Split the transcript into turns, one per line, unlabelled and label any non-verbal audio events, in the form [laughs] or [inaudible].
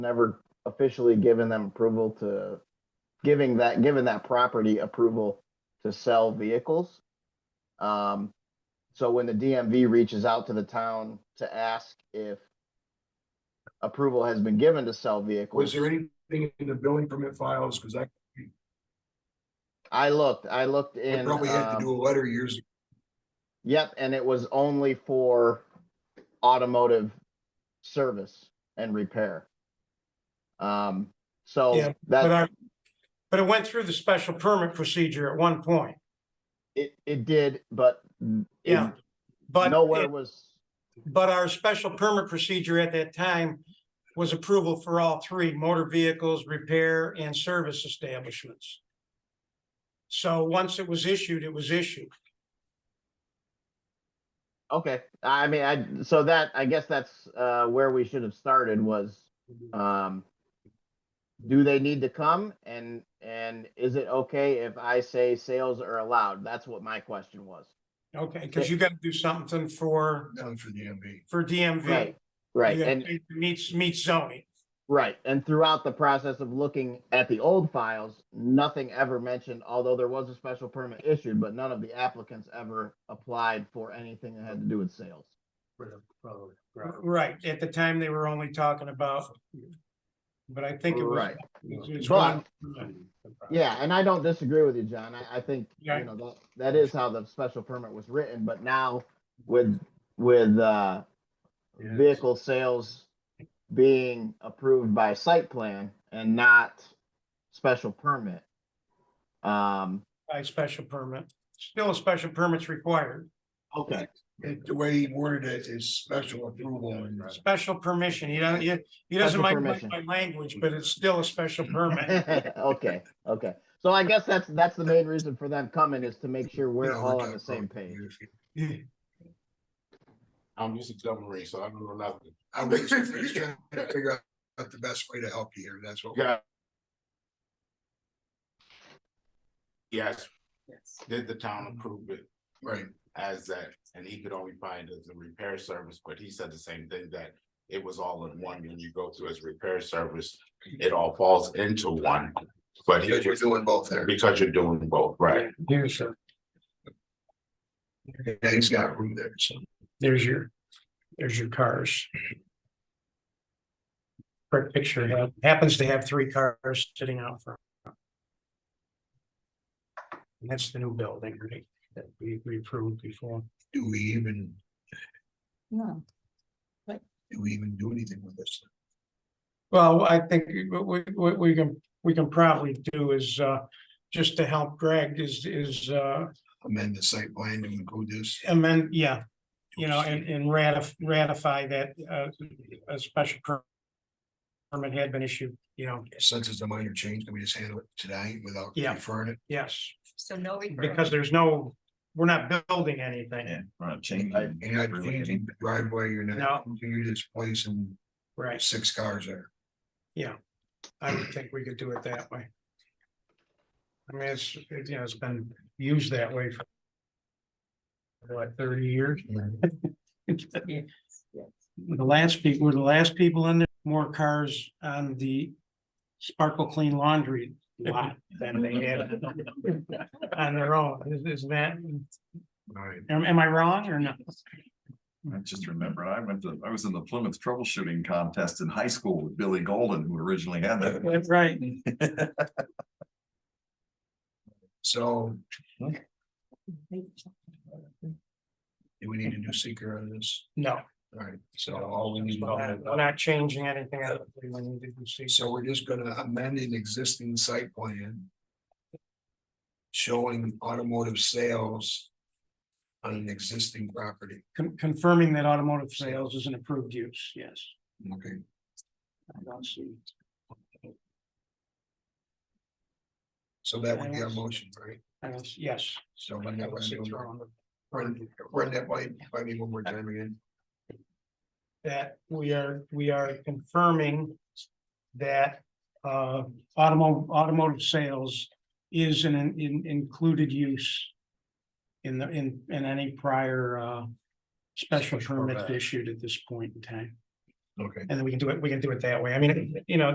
never officially given them approval to, giving that, given that property approval to sell vehicles. Um, so when the DMV reaches out to the town to ask if approval has been given to sell
Was
vehicles,
there anything in the building permit files? Cause I
I looked, I looked
I
in,
probably had to
um,
do a letter years. ago.
Yep, and it was only for automotive service and repair. Um,
Yeah,
so
But
that,
I, but it went through the special permit procedure at one point,
it, it did, but n- it-
Yeah, but,
Nowhere
it-
was,
but our special permit procedure at that time was approval for all three, motor vehicles, repair and service establishments. So once it was issued, it was issued.
okay, I mean, I, so that, I guess that's, uh, where we should have started was, um, do they need to come and, and is it okay if I say sales are allowed? That's what my question was.
Okay, because you got to do something for,
Done for the MV.
for DMV.
Right,
You
right,
gotta
and,
make- Meets, meets zoning.
Right, and throughout the process of looking at the old files, nothing ever mentioned, although there was a special permit issued, but none of the applicants ever applied for anything that had to do with sales.
Right, at the time, they were only talking about, but I think it was.
Right,
it's- it's
But-
one-
yeah, and I don't disagree with you, John, I, I think,
Yeah.
you know, that, that is how the special permit was written, but now with, with, uh, vehicle sales being approved by site plan and not special permit. Um,
by special permit. Still a special permit's required.
okay,
It- The way he worded it is special approval. and-
Special permission, he doesn't, he, he doesn't
Special
mind my,
permission.
my language, but it's still a special
[laughs]
permit.
[laughs] Okay, okay. So I guess that's, that's the main reason for them coming is to make sure we're
Yeah,
all
got
on the same
probably
page.
years ago.
I'm just a double race, so I don't know nothing.
I'm just just trying to figure out the best way to help you here. That's what.
Yeah. Yes, did the town approve it
Right.
as that, and he could only find as a repair service, but he said the same thing that. It was all in one, when you go to his repair service, it all falls into one, but he
Because you're
was,
doing both there.
because you're doing both, right?
Here's your,
Yeah, he's got room there. So
there's your, there's your cars. Quick picture, ha- happens to have three cars sitting out front. And that's the new building, right, that we, we approved before.
do we even,
No,
do we even do anything with this?
Well, I think what we, what we can, we can probably do is, uh, just to help Greg is, is, uh,
Amend the site plan to include this?
amend, yeah. You know, and, and ratif- ratify that, uh, a special per- permit had been issued, you know,
Since it's a minor change, can we just handle it today without
Yeah.
referring it?
yes,
so no. referral.
because there's no, we're not building anything,
I-
You're not changing driveway, you're not, you're just placing
right?
six cars there.
I would think we could do it that way. I mean, it's, it, you know, it's been used that way for what, thirty years?
Yes, yes.
The last people, were the last people in there, more cars on the Sparkle Clean Laundry lot than they had on their own. Is, is that,
Right.
am, am I wrong or no?
I just remember, I went to, I was in the Plymouth troubleshooting contest in high school with Billy Golden, who originally
[laughs]
had that.
That's right.
So do we need a new seeker on this?
No,
Alright, so all we need.
we're not changing anything. other than we need to see.
So we're just gonna amend an existing site plan. Showing automotive sales. On an existing property,
Con- Confirming that automotive sales is an approved use, yes.
okay,
I don't see.
so that would be our motion, right?
I don't, see- yes.
So
I
run that
don't
by
see
me,
what's
one-
wrong with
run, run that by, by me one more time again.
That we are, we are confirming that uh automo- automotive sales is an in- in- included use in the, in, in any prior uh special
Special
permit
permit.
issued at this point in time.
Okay.
and then we can do it, we can do it that way. I mean, you know,